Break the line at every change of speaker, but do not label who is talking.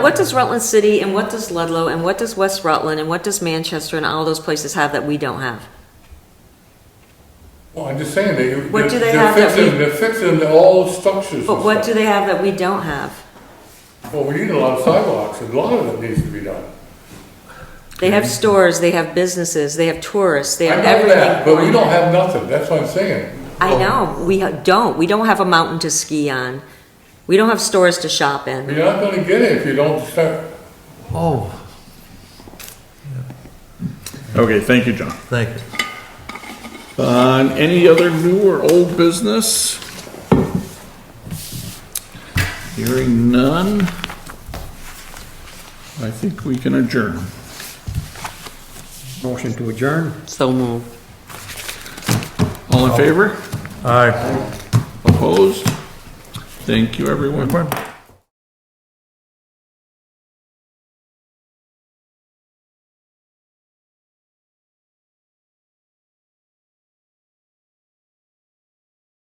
What does Rutland City and what does Ludlow and what does West Rutland and what does Manchester and all those places have that we don't have?
Well, I'm just saying, they,
What do they
they're they're
have that
fixing,
we-
they're fixing the old structures and
But what do
stuff.
they have that we don't have?
Well, we need a lot of sidewalks, and a lot of it needs to be done.
They have stores, they have businesses, they have tourists, they
I
have
know
everything.
that, but we
going
don't
on.
have nothing, that's what I'm saying.
I know, we ha- don't. We don't have a mountain to ski on. We don't have stores to shop in.
You're not gonna get it if you don't start,
Oh,
Okay, thank you, John.
thank you.
Uh, any other new or old business? Hearing none. I think we can adjourn.
Motion to adjourn?
So moved.
All in favor?
Aye.
Opposed? Thank you, everyone.